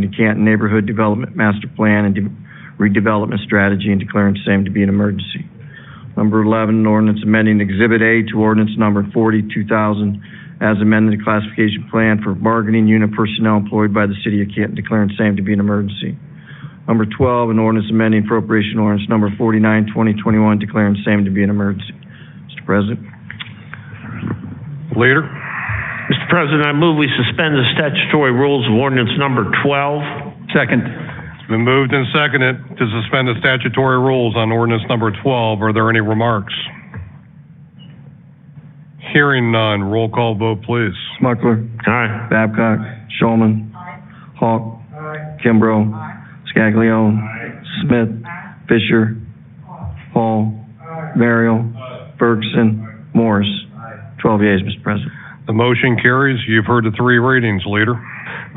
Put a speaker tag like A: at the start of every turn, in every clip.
A: the Canton Neighborhood Development Master Plan and de- redevelopment strategy and declaring same to be an emergency. Number 11, an ordinance amending Exhibit A to ordinance number 40, 2000, as amended the classification plan for bargaining unit personnel employed by the city of Canton, declaring same to be an emergency. Number 12, an ordinance amending appropriation ordinance number 49, 2021, declaring same to be an emergency. Mr. President.
B: Leader?
C: Mr. President, I move we suspend the statutory rules of ordinance number 12.
B: Second. It's been moved and seconded to suspend the statutory rules on ordinance number 12. Are there any remarks? Hearing none, roll call vote, please.
A: Smucker.
C: Aye.
A: Babcock. Showman. Hawk. Kimbrough. Scaglione. Smith. Fisher. Hall. Merrill. Ferguson. Morris. Twelve yeas, Mr. President.
B: The motion carries. You've heard the three readings, Leader.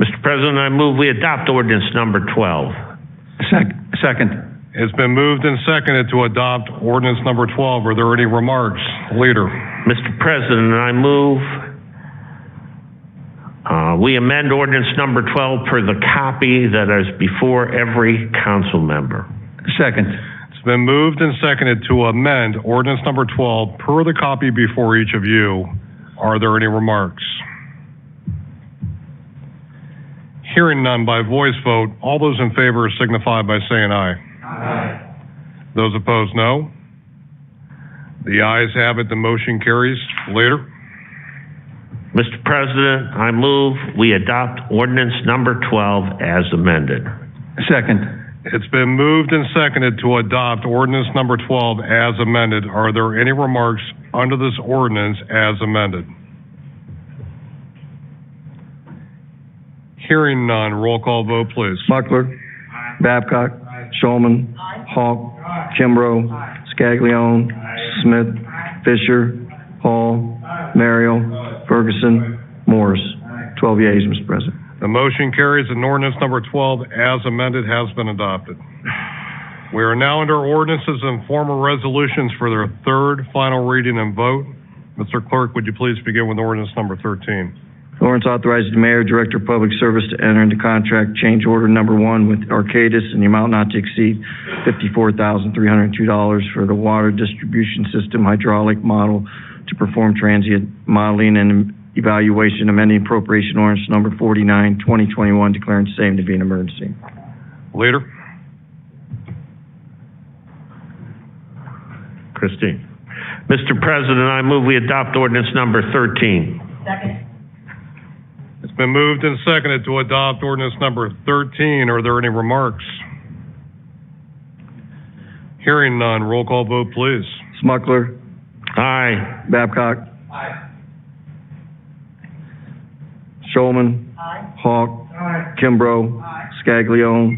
C: Mr. President, I move we adopt ordinance number 12.
B: Second. It's been moved and seconded to adopt ordinance number 12. Are there any remarks? Leader?
C: Mr. President, I move uh, we amend ordinance number 12 per the copy that is before every council member.
B: Second. It's been moved and seconded to amend ordinance number 12 per the copy before each of you. Are there any remarks? Hearing none by voice vote, all those in favor signify by saying aye. Aye. Those opposed, no. The ayes have it, the motion carries. Leader?
C: Mr. President, I move we adopt ordinance number 12 as amended.
B: It's been moved and seconded to adopt ordinance number 12 as amended. Are there any remarks under this ordinance as amended? Hearing none, roll call vote, please.
A: Smucker. Babcock. Showman. Hawk. Kimbrough. Scaglione. Smith. Fisher. Hall. Merrill. Ferguson. Morris. Twelve yeas, Mr. President.
B: The motion carries and ordinance number 12 as amended has been adopted. We are now under ordinances and formal resolutions for their third, final reading and vote. Mr. Clerk, would you please begin with ordinance number 13?
A: Ordinance authorizing the mayor, director of public service to enter into contract change order number one with Arcadis in the amount not to exceed $54,302 for the water distribution system hydraulic model to perform transient modeling and evaluation amending appropriation ordinance number 49, 2021, declaring same to be an emergency.
B: Leader?
C: Christine. Mr. President, I move we adopt ordinance number 13.
B: It's been moved and seconded to adopt ordinance number 13. Are there any remarks? Hearing none, roll call vote, please.
A: Smucker.
C: Aye.
A: Babcock. Aye. Showman. Hawk. Kimbrough. Scaglione.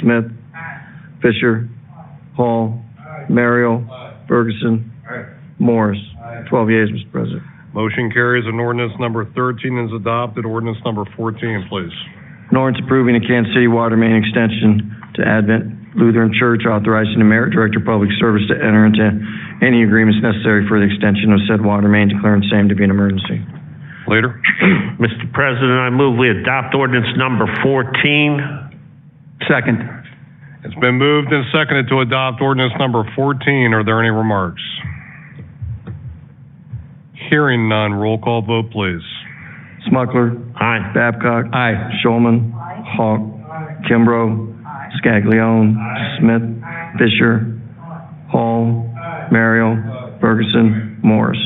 A: Smith. Fisher. Hall. Merrill. Ferguson. Morris. Twelve yeas, Mr. President.
B: Motion carries and ordinance number 13 is adopted. Ordinance number 14, please.
A: An ordinance approving a Kansas City water main extension to Advent Lutheran Church authorizing the Merit Director of Public Service to enter into any agreements necessary for the extension of said water main declaring same to be an emergency.
B: Leader?
C: Mr. President, I move we adopt ordinance number 14.
A: Second.
B: It's been moved and seconded to adopt ordinance number 14. Are there any remarks? Hearing none, roll call vote, please.
A: Smucker.
C: Aye.
A: Babcock. Aye. Showman. Hawk. Kimbrough. Scaglione. Smith. Fisher. Hall. Merrill. Ferguson. Morris.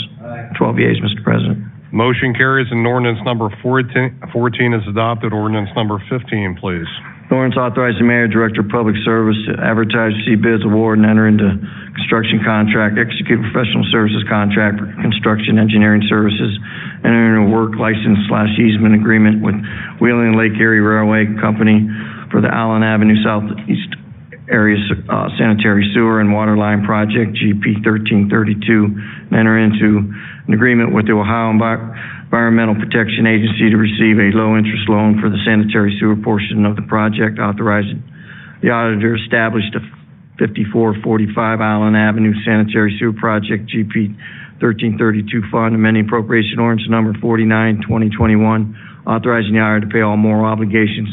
A: Twelve yeas, Mr. President.
B: Motion carries and ordinance number 14 14 is adopted. Ordinance number 15, please.
A: An Ordinance authorizing the mayor, director of public service to advertise, receive bids, award, and enter into construction contract, execute professional services contract for construction engineering services, and enter into work license slash easement agreement with Wheeling Lake Erie Railway Company for the Allen Avenue Southeast Area uh, Sanitary Sewer and Water Line Project, GP 1332, and enter into an agreement with the Ohio Envi- Environmental Protection Agency to receive a low-interest loan for the sanitary sewer portion of the project, authorizing the auditor established a 5445 Island Avenue Sanitary Sewer Project, GP 1332 Fund, amending appropriation ordinance number 49, 2021, authorizing the auditor to pay all moral obligations